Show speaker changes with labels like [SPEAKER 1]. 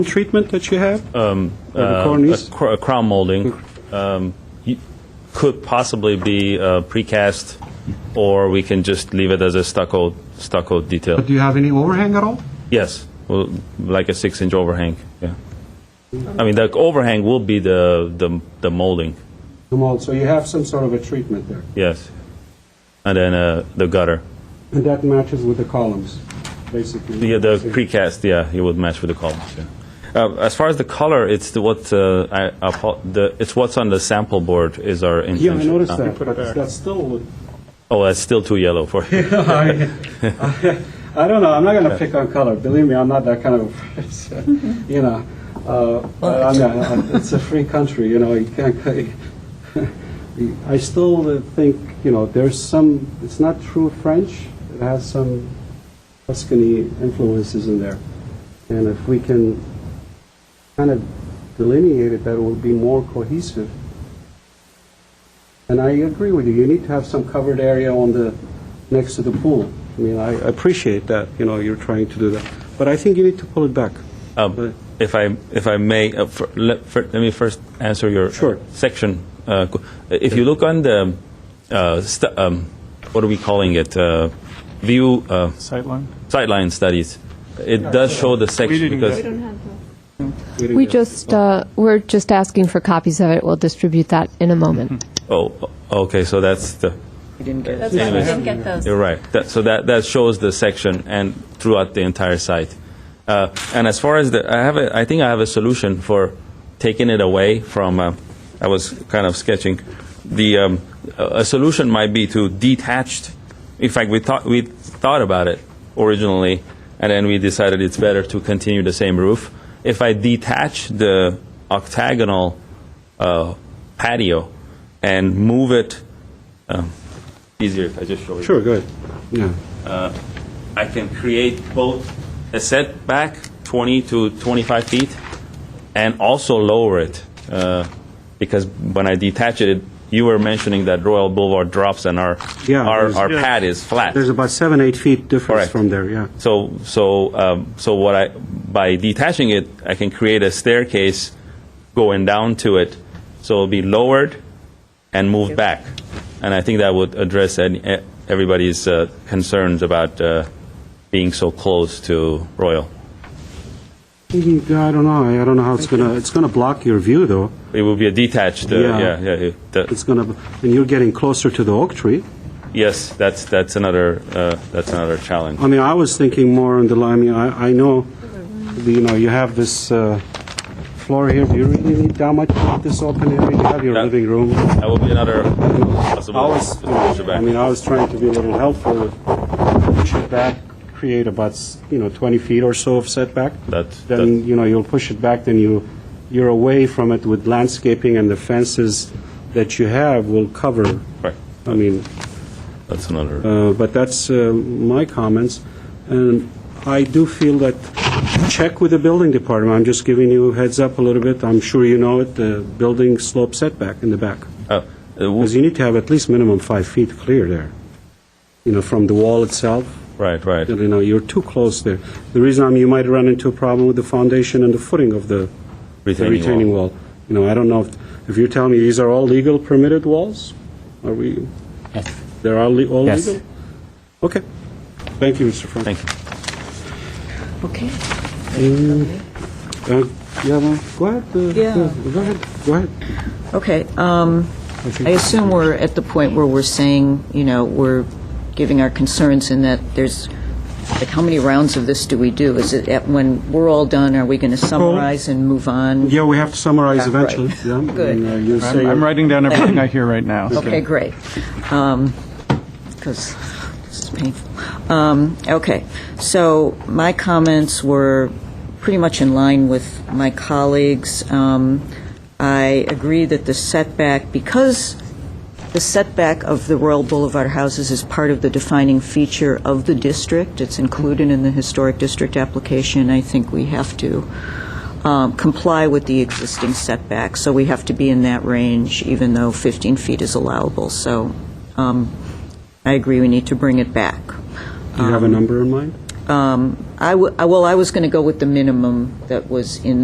[SPEAKER 1] treatment that you have? Um.
[SPEAKER 2] uh,
[SPEAKER 1] cornice?
[SPEAKER 2] a cr- a crown molding um, y- could possibly be uh, precast, or we can just leave it as a stucco stucco detail.
[SPEAKER 1] But do you have any overhang at all?
[SPEAKER 2] Yes, well, like a six-inch overhang. Yeah. I mean, the overhang will be the the, the molding.
[SPEAKER 1] Come on, so you have some sort of a treatment there,
[SPEAKER 2] Yes, and then uh, the gutter.
[SPEAKER 1] and that matches with the columns, basically.
[SPEAKER 2] Yeah, the precast, yeah, it would match with the columns, yeah. Uh, As far as the color, it's the what, uh, I, apo- the, it's what's on the sample board is our
[SPEAKER 1] Yeah,
[SPEAKER 2] intention.
[SPEAKER 1] I noticed
[SPEAKER 2] Uh,
[SPEAKER 1] that, but that's still,
[SPEAKER 2] Oh, that's still too yellow for you.
[SPEAKER 1] I I don't know, I'm not going to pick on color, believe me, I'm not that kind of, a person, you know, Uh, I mean, I- it's a free country, you know, you can't, I still think, you know, there's some, it's not true French, it has some Tuscany influences in there, and if we can kind of delineate it, that it will be more cohesive. And I agree with you, you need to have some covered area on the, next to the pool. I mean, I appreciate that, you know, you're trying to do that, but I think you need to pull it back.
[SPEAKER 2] Um, If I, if I may, uh, fir- let fir- let me first answer your
[SPEAKER 1] Sure.
[SPEAKER 2] section. uh, qu- If you look on the, uh, st- um, what are we calling it? Uh, View, uh,
[SPEAKER 3] Sightline?
[SPEAKER 2] sideline studies, it does show the section
[SPEAKER 3] didn't
[SPEAKER 2] because.
[SPEAKER 3] get-
[SPEAKER 1] didn't
[SPEAKER 4] We
[SPEAKER 1] get-
[SPEAKER 4] just, uh, we're just asking for copies of it. We'll distribute that in a moment.
[SPEAKER 2] Oh, okay, so that's the,
[SPEAKER 5] That's why we didn't get those.
[SPEAKER 2] You're right. That, so that, that shows the section and throughout the entire site. Uh, and as far as the, I have a, I think I have a solution for taking it away from. Uh, I was kind of sketching. The um, a a solution might be to detached. In fact, we thought we thought about it originally, and then we decided it's better to continue the same roof. If I detach the octagonal uh, patio and move it, um, easier if I just show you.
[SPEAKER 1] Sure, go ahead. Yeah.
[SPEAKER 2] I can create both a setback 20 to 25 feet and also lower it. uh, Because when I detach it, you were mentioning that Royal Boulevard drops and our,
[SPEAKER 1] Yeah,
[SPEAKER 2] our
[SPEAKER 1] there's-
[SPEAKER 2] our
[SPEAKER 1] Yeah.
[SPEAKER 2] pad is flat.
[SPEAKER 1] There's about seven, eight feet difference
[SPEAKER 2] Correct.
[SPEAKER 1] from there, yeah.
[SPEAKER 2] So, so, um, so what I, by detaching it, I can create a staircase going down to it, so it'll be lowered and moved back. And I think that would address any, eh, everybody's uh, concerns about uh, being so close to Royal.
[SPEAKER 1] Mm, I don't know, I- I don't know how it's gonna, it's gonna block your view, though.
[SPEAKER 2] It would be a detached, uh,
[SPEAKER 1] Yeah.
[SPEAKER 2] yeah, yeah, yeah.
[SPEAKER 1] It's
[SPEAKER 2] That-
[SPEAKER 1] gonna, and you're getting closer to the oak tree.
[SPEAKER 2] Yes, that's, that's another, uh, that's another challenge.
[SPEAKER 1] I mean, I was thinking more on the line, I mean, I, I know, you know, you have this uh, floor here, do you really need that much of this open area? You have your
[SPEAKER 2] Yeah.
[SPEAKER 1] living room.
[SPEAKER 2] That would be another
[SPEAKER 1] I
[SPEAKER 2] possible.
[SPEAKER 1] was, I mean, I was trying to be a little helpful, push it back, create about, s- you know, 20 feet or so of setback.
[SPEAKER 2] That's-
[SPEAKER 1] Then, you know, you'll push it back, then you, you're away from it with landscaping and the fences that you have will cover.
[SPEAKER 2] Right.
[SPEAKER 1] I mean,
[SPEAKER 2] That's another.
[SPEAKER 1] uh, but that's uh, my comments. And I do feel that, check with the building department, I'm just giving you a heads up a little bit, I'm sure you know it, the building slope setback in the back.
[SPEAKER 2] uh, uh, w-
[SPEAKER 1] Because you need to have at least minimum five feet clear there, you know, from the wall itself.
[SPEAKER 2] Right, right.
[SPEAKER 1] You know, you're too close there. The reason I'm, you might run into a problem with the foundation and the footing of the the
[SPEAKER 2] Retaining wall.
[SPEAKER 1] retaining wall. You know, I don't know if, if you're telling me these are all legal permitted walls? Are we, they're all le- all
[SPEAKER 6] Yes.
[SPEAKER 1] legal? Okay. Thank you, Mr. Frank.
[SPEAKER 2] Thank you.
[SPEAKER 5] Okay.
[SPEAKER 1] Uh, Yeah, well, go ahead. uh,
[SPEAKER 7] Yeah.
[SPEAKER 1] Go ahead, go ahead.
[SPEAKER 7] Okay, um, I assume we're at the point where we're saying, you know, we're giving our concerns in that there's, like, how many rounds of this do we do? Is it, at- when we're all done, are we going to summarize and move on?
[SPEAKER 1] Yeah, we have to summarize
[SPEAKER 7] Yeah, right.
[SPEAKER 1] eventually. yeah, and,
[SPEAKER 7] Good.
[SPEAKER 1] uh, you say-
[SPEAKER 3] I'm I'm writing down everything I hear right now. so-
[SPEAKER 7] Okay, great. Because this is painful. Um, Okay, so my comments were pretty much in line with my colleagues. Um, I agree that the setback, because the setback of the Royal Boulevard houses is part of the defining feature of the district, it's included in the historic district application, I think we have to um, comply with the existing setback, so we have to be in that range, even though 15 feet is allowable. So um, I agree, we need to bring it back.
[SPEAKER 1] Do you have a number in mind?
[SPEAKER 7] Uh, um, I w- I- well, I was going to go with the minimum that was in